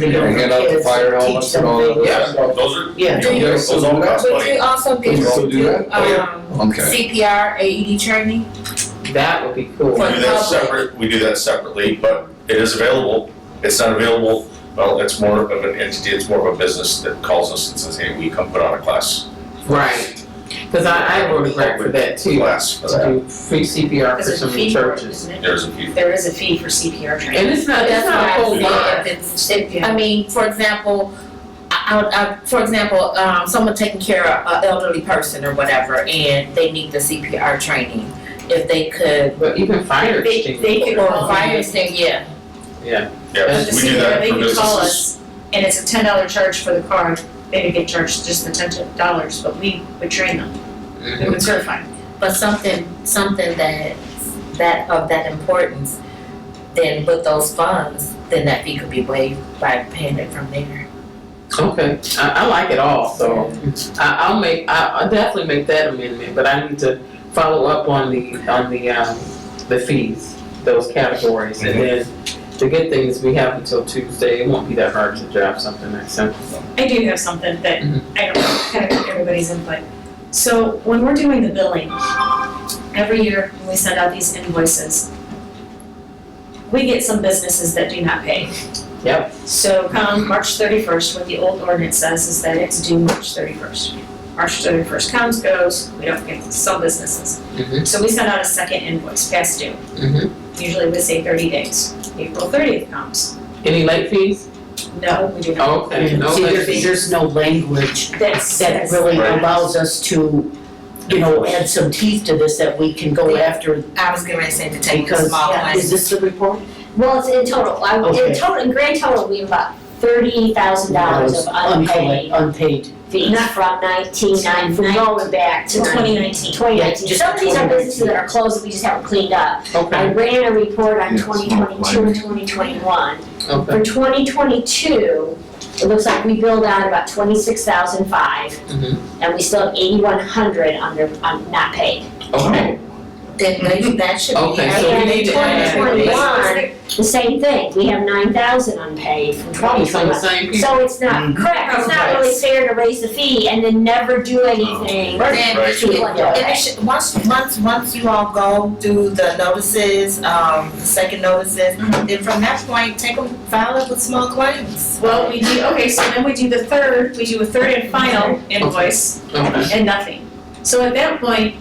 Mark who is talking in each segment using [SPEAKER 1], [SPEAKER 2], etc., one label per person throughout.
[SPEAKER 1] You know, hand out the fire helmets and all that.
[SPEAKER 2] Yeah, those are, you
[SPEAKER 3] Yeah.
[SPEAKER 2] know, those all cost
[SPEAKER 4] But do
[SPEAKER 2] money.
[SPEAKER 4] you also get
[SPEAKER 1] You also
[SPEAKER 4] to
[SPEAKER 1] do
[SPEAKER 4] do
[SPEAKER 1] that? Oh,
[SPEAKER 4] um,
[SPEAKER 1] Okay.
[SPEAKER 4] CPR, AED E training?
[SPEAKER 3] That would be cool.
[SPEAKER 2] We do that
[SPEAKER 4] public.
[SPEAKER 2] separate, we do that separately, but it is available. It's not available, well, it's more of an entity, it's more of a business that calls us and says, hey, we come put on a class,
[SPEAKER 3] Right. Because I, I would work for that too,
[SPEAKER 2] class. for
[SPEAKER 3] to
[SPEAKER 2] that.
[SPEAKER 3] do free CPR for
[SPEAKER 5] There's a
[SPEAKER 3] some
[SPEAKER 5] fee for it,
[SPEAKER 3] churches.
[SPEAKER 5] isn't it?
[SPEAKER 2] There's a few.
[SPEAKER 5] There is a fee for CPR training.
[SPEAKER 3] And it's not, it's not a whole lot.
[SPEAKER 4] I
[SPEAKER 5] lot.
[SPEAKER 4] mean, for example, I, I, I- for example, um, someone taking care of an elderly person or whatever, and they need the CPR training. If they could,
[SPEAKER 3] But even fire
[SPEAKER 5] They,
[SPEAKER 3] extinguishers.
[SPEAKER 5] they could
[SPEAKER 4] or
[SPEAKER 5] call
[SPEAKER 4] fire
[SPEAKER 5] the
[SPEAKER 4] extinguisher, yeah,
[SPEAKER 2] Yeah, we do that
[SPEAKER 5] they
[SPEAKER 2] for
[SPEAKER 5] could call
[SPEAKER 2] businesses.
[SPEAKER 5] us, and it's a ten dollar charge for the card. They would get charged just the ten dollars, but we would train them. We would certify. them.
[SPEAKER 4] but something, something that, that of that importance, then with those funds, then that fee could be waived by paying it from there.
[SPEAKER 3] Okay, I, I like it all, so I, I'll make, I, I'll definitely make that amendment, but I need to follow up on the, on the, um, the fees, those categories.
[SPEAKER 1] Mm-hmm.
[SPEAKER 3] And then the good thing is we have until Tuesday, it won't be that hard to draft something that's simple.
[SPEAKER 5] I do have something that
[SPEAKER 3] Mhm.
[SPEAKER 6] Mm-hmm.
[SPEAKER 5] I don't kind of get everybody's input. So when we're doing the billing, every year when we send out these invoices, we get some businesses that do not pay.
[SPEAKER 3] Yep.
[SPEAKER 5] So come March thirty-first, what the old ordinance says is that it's due March thirty-first. March thirty-first comes, goes, we don't get some businesses.
[SPEAKER 6] Mm-hmm.
[SPEAKER 3] Mhm.
[SPEAKER 5] So we send out a second invoice, past due.
[SPEAKER 3] Mhm.
[SPEAKER 5] Usually we say thirty days. April thirtieth comes,
[SPEAKER 3] Any late fees?
[SPEAKER 5] no, we do not.
[SPEAKER 3] Okay, no
[SPEAKER 6] See,
[SPEAKER 3] late
[SPEAKER 6] there's,
[SPEAKER 3] fees.
[SPEAKER 6] there's no language
[SPEAKER 5] That's,
[SPEAKER 6] Oh. that
[SPEAKER 5] that's,
[SPEAKER 6] really
[SPEAKER 2] Right.
[SPEAKER 6] allows us to, you know, add some teeth to this that we can go after.
[SPEAKER 4] I was getting ready to say to take the
[SPEAKER 6] Because-
[SPEAKER 4] small
[SPEAKER 5] yeah,
[SPEAKER 4] ones.
[SPEAKER 6] Is this the report?
[SPEAKER 7] Well, it's in total, I,
[SPEAKER 6] Okay.
[SPEAKER 7] in total, in grand total, we have about thirty thousand dollars of
[SPEAKER 6] Uncollect-
[SPEAKER 7] unpaid
[SPEAKER 6] Unpaid.
[SPEAKER 7] fees from nineteen nine, from going back to
[SPEAKER 5] to
[SPEAKER 7] twenty
[SPEAKER 5] twenty nineteen.
[SPEAKER 7] nineteen.
[SPEAKER 6] just
[SPEAKER 7] Some of these are
[SPEAKER 6] 2019.
[SPEAKER 7] businesses that are closed that we just haven't cleaned up. I
[SPEAKER 3] Okay,
[SPEAKER 7] ran a report on
[SPEAKER 1] Yeah, it's
[SPEAKER 7] twenty
[SPEAKER 1] not
[SPEAKER 7] twenty-two and twenty twenty-one.
[SPEAKER 3] okay.
[SPEAKER 7] For twenty twenty-two, it looks like we billed out about twenty-six thousand five.
[SPEAKER 3] Mhm.
[SPEAKER 7] And we still have eighty-one hundred under, on not paid.
[SPEAKER 3] Okay,
[SPEAKER 4] Then maybe that should be.
[SPEAKER 3] Okay, so we
[SPEAKER 7] And
[SPEAKER 3] need
[SPEAKER 7] in
[SPEAKER 3] to add
[SPEAKER 7] twenty
[SPEAKER 3] it.
[SPEAKER 7] twenty-one, the same thing, we have nine thousand unpaid from twenty
[SPEAKER 3] it's on
[SPEAKER 7] twenty-one.
[SPEAKER 3] the same piece.
[SPEAKER 7] So it's not correct, it's not really fair to raise the fee and then never do
[SPEAKER 4] Then
[SPEAKER 7] anything.
[SPEAKER 4] we
[SPEAKER 2] Right.
[SPEAKER 4] should, then we should, once, once, once you all go do the notices, um, the second notices,
[SPEAKER 8] Mm-hmm.
[SPEAKER 4] then from that point, take them, file it with small claims.
[SPEAKER 5] Well, we do, okay, so then we do the third, we do a third and final invoice
[SPEAKER 3] Okay,
[SPEAKER 5] and nothing. So at that point,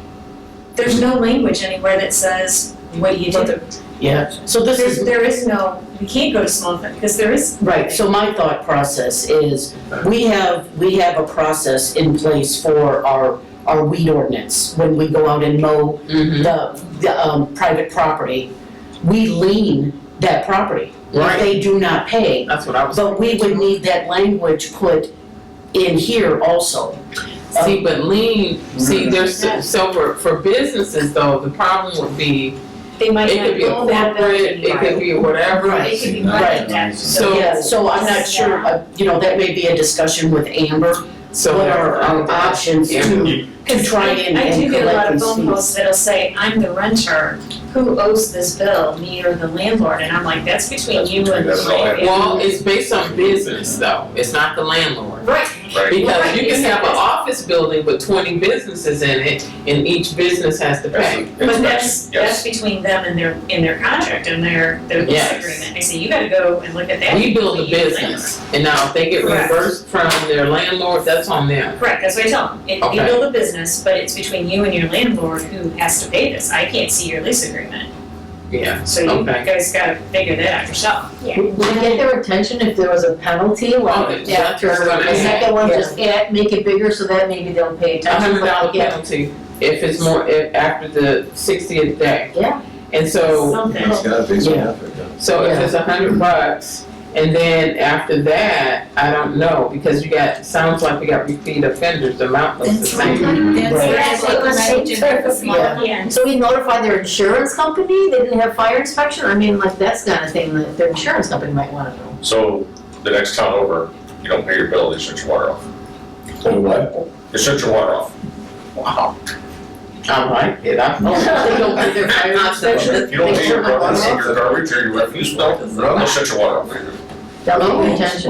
[SPEAKER 5] there's no language anywhere that says, what do you do?
[SPEAKER 6] Yeah, so this
[SPEAKER 5] There's,
[SPEAKER 6] is,
[SPEAKER 5] there is no, we can't go to small thing, because there is,
[SPEAKER 6] right, so my thought process is, we have, we have a process in place for our, our weed ordinance. When we go out and mow
[SPEAKER 3] mhm,
[SPEAKER 6] the, the, um, private property, we lien that property. If
[SPEAKER 3] right,
[SPEAKER 6] they do not pay,
[SPEAKER 3] that's what I was.
[SPEAKER 6] but we would need that language put in here also.
[SPEAKER 3] See, but lean, see, there's, so for, for businesses though, the problem would be,
[SPEAKER 5] they might
[SPEAKER 3] it could
[SPEAKER 5] not
[SPEAKER 3] be a
[SPEAKER 5] go that
[SPEAKER 3] corporate, it could be whatever.
[SPEAKER 6] Right.
[SPEAKER 5] It could be
[SPEAKER 6] Right.
[SPEAKER 5] money tax.
[SPEAKER 3] So-
[SPEAKER 6] Yeah, so I'm not sure, uh, you know, that may be a discussion with Amber,
[SPEAKER 3] So um,
[SPEAKER 6] what are our
[SPEAKER 3] that's-
[SPEAKER 6] options to, to try and,
[SPEAKER 5] I do
[SPEAKER 6] and
[SPEAKER 5] get a lot
[SPEAKER 6] collect
[SPEAKER 5] of
[SPEAKER 6] these
[SPEAKER 5] phone
[SPEAKER 6] fees.
[SPEAKER 5] calls that'll say, I'm the renter, who owes this bill, me or the landlord? And I'm like, that's between you and the
[SPEAKER 2] That's all I have.
[SPEAKER 5] landlord.
[SPEAKER 3] Well, it's based on business though, it's not the landlord.
[SPEAKER 5] Right,
[SPEAKER 2] Right,
[SPEAKER 3] Because you can have an
[SPEAKER 5] Right.
[SPEAKER 3] office building with twenty businesses in it, and each business has to
[SPEAKER 2] that's
[SPEAKER 3] pay.
[SPEAKER 2] the
[SPEAKER 5] But
[SPEAKER 2] inspection,
[SPEAKER 5] that's, that's
[SPEAKER 2] yes.
[SPEAKER 5] between them and their, in their contract and their, their lease
[SPEAKER 3] Yes.
[SPEAKER 5] agreement. I say, you gotta go and look at that.
[SPEAKER 3] We build a
[SPEAKER 5] before you do that."
[SPEAKER 3] business, and now if they get
[SPEAKER 5] Correct.
[SPEAKER 3] reimbursed from their landlord, that's on them.
[SPEAKER 5] Correct, that's what I tell them. If
[SPEAKER 3] Okay.
[SPEAKER 5] you build a business, but it's between you and your landlord who has to pay this. I can't see your lease agreement.
[SPEAKER 3] Yeah,
[SPEAKER 5] So you
[SPEAKER 3] Okay.
[SPEAKER 5] guys gotta figure that out yourself.
[SPEAKER 7] Yeah.
[SPEAKER 8] Would it get their attention if there was a penalty,
[SPEAKER 3] Oh,
[SPEAKER 8] like
[SPEAKER 3] yeah,
[SPEAKER 8] after
[SPEAKER 3] that's what I
[SPEAKER 8] the
[SPEAKER 3] mean.
[SPEAKER 8] second one,
[SPEAKER 4] Yeah.
[SPEAKER 8] just add, make it bigger so that maybe they'll pay
[SPEAKER 3] a
[SPEAKER 8] attention.
[SPEAKER 3] hundred dollar
[SPEAKER 8] but yeah.
[SPEAKER 3] penalty if it's more, if after the sixtieth day.
[SPEAKER 8] Yeah.
[SPEAKER 3] And so.
[SPEAKER 5] Something.
[SPEAKER 3] So if
[SPEAKER 8] Yeah.
[SPEAKER 3] it's a hundred bucks, and then after that, I don't know, because you got, sounds like we got repeat offenders, the amount was the
[SPEAKER 4] That's right.
[SPEAKER 3] same.
[SPEAKER 4] That's, that's
[SPEAKER 7] Right.
[SPEAKER 4] like language in the small.
[SPEAKER 8] Yeah.
[SPEAKER 5] Yeah.
[SPEAKER 8] So we notify their insurance company, they didn't have fire inspection, I mean, like, that's kind of thing that their insurance company might wanna know.
[SPEAKER 2] So the next town over, you don't pay your bill, they shut your water off.
[SPEAKER 1] Or what?
[SPEAKER 2] They shut your water off. Wow.
[SPEAKER 3] I like it, I.
[SPEAKER 8] They don't get their fire inspection.
[SPEAKER 2] If you don't
[SPEAKER 8] They
[SPEAKER 2] pay your
[SPEAKER 8] turn my water
[SPEAKER 2] garbage,
[SPEAKER 8] off.
[SPEAKER 2] your garbage or your refuse bill, they'll shut your water off.
[SPEAKER 3] Oh.
[SPEAKER 8] That would be attention.